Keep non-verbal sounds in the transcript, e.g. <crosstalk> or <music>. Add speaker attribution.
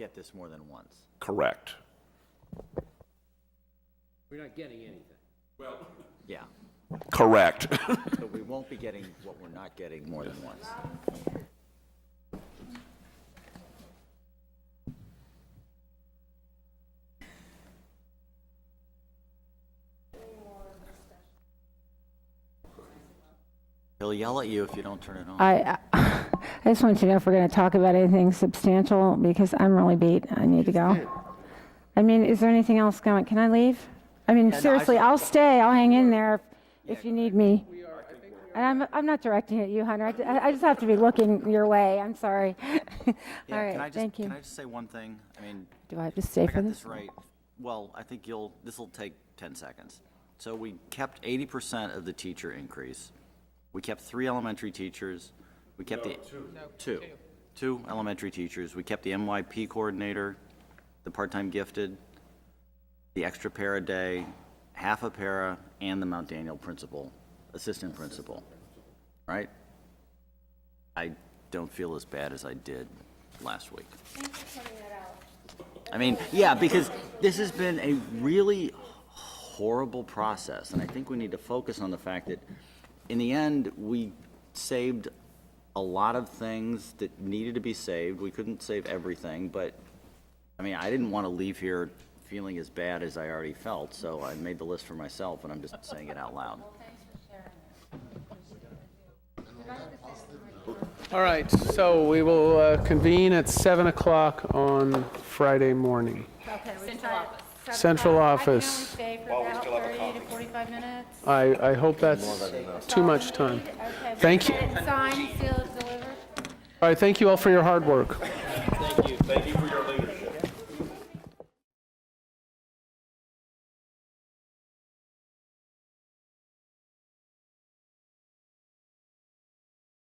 Speaker 1: get this more than once.
Speaker 2: Correct.
Speaker 3: We're not getting anything.
Speaker 1: Yeah,
Speaker 2: Correct. <laughs>
Speaker 1: so we won't be getting what we're not getting more than once. He'll yell at you if you don't turn it on.
Speaker 4: I, <laughs> I just want you to know if we're going to talk about anything substantial, because I'm really beat. I need to go. I mean, is there anything else going? Can I leave? I mean, seriously, I'll stay. I'll hang in there if if you need me. And I'm, I'm not directing at you, Hunter. I ju- I, I just have to be looking your way. I'm sorry. <laughs> All
Speaker 1: Yeah, can I
Speaker 4: right,
Speaker 1: just-
Speaker 4: thank you.
Speaker 1: Can I just say one thing? I mean,
Speaker 4: Do I have to stay
Speaker 1: I
Speaker 4: for
Speaker 1: got
Speaker 4: this?
Speaker 1: this right. Well, I think you'll, this'll take 10 seconds. So we kept 80% of the teacher increase. We kept three elementary teachers. We kept the. Two. Two elementary teachers. We kept the MYP coordinator, the part-time gifted, the extra para day, half a para, and the Mount Daniel principal, assistant principal. Right? I don't feel as bad as I did last week. I mean, yeah, because this has been a really horrible process, and I think we need to focus on the fact that, in the end, we saved a lot of things that needed to be saved. We couldn't save everything, but, I mean, I didn't want to leave here feeling as bad as I already felt, so I made the list for myself, and I'm just saying it out loud.
Speaker 5: All right, so we will uh, convene at 7 o'clock on Friday morning.
Speaker 6: Central office.
Speaker 5: Central office.
Speaker 6: I can only stay for about 30 to 45 minutes.
Speaker 5: I, I hope that's too much time.
Speaker 6: Okay, we
Speaker 5: Thank
Speaker 6: can
Speaker 5: you.
Speaker 6: get it Signed, sealed, delivered.
Speaker 5: All right, thank you all for your hard work.
Speaker 2: Thank you. Thank you for your leadership.